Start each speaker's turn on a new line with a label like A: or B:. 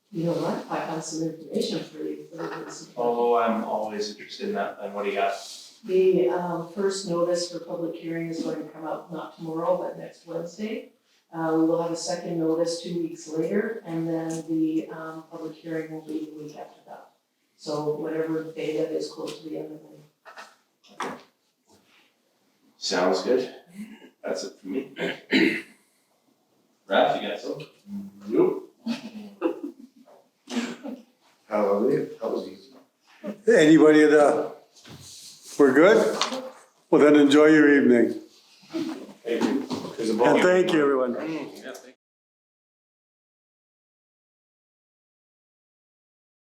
A: You know what, I have some information for you for this.
B: Oh, I'm always interested in that, then what do you got?
A: The um, first notice for public hearing is going to come out not tomorrow, but next Wednesday. Uh, We will have a second notice two weeks later, and then the um, public hearing will be the week after that. So whatever day that is close to the end of the
B: Sounds good. That's it for me. Ralph, you got something?
C: Nope. Hallelujah, that was easy.
D: Anybody at, uh, we're good? Well, then enjoy your evening.
B: Thank you.
C: There's a
D: And thank you, everyone.
B: Yeah, thank you.